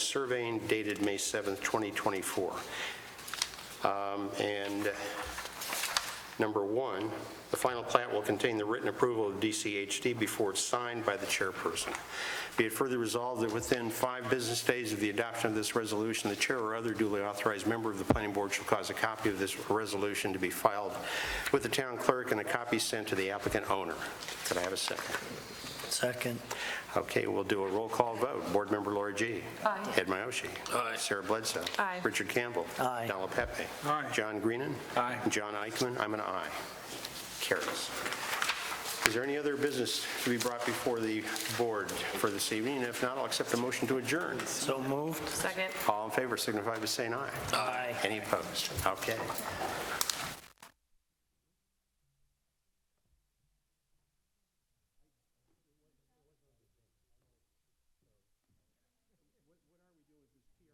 surveying dated May 7th, 2024. Um, And number one, the final plat will contain the written approval of DCHD before it's signed by the chairperson. Be it further resolved that within five business days of the adoption of this resolution, the chair or other duly authorized member of the planning board shall cause a copy of this resolution to be filed with the town clerk and a copy sent to the applicant owner. Could I have a second? Second. Okay, we'll do a roll call vote. Board Member Lori G. Aye. Ed Miyoshi. Aye. Sarah Bledsoe. Aye. Richard Campbell. Aye. Dalla Pepe. Aye. John Greenan. Aye. John Eichman. I'm an aye. Carries. Is there any other business to be brought before the board for this evening? And if not, I'll accept the motion to adjourn. So moved. Second. All in favor signify by saying aye. Aye. Any opposed? Okay.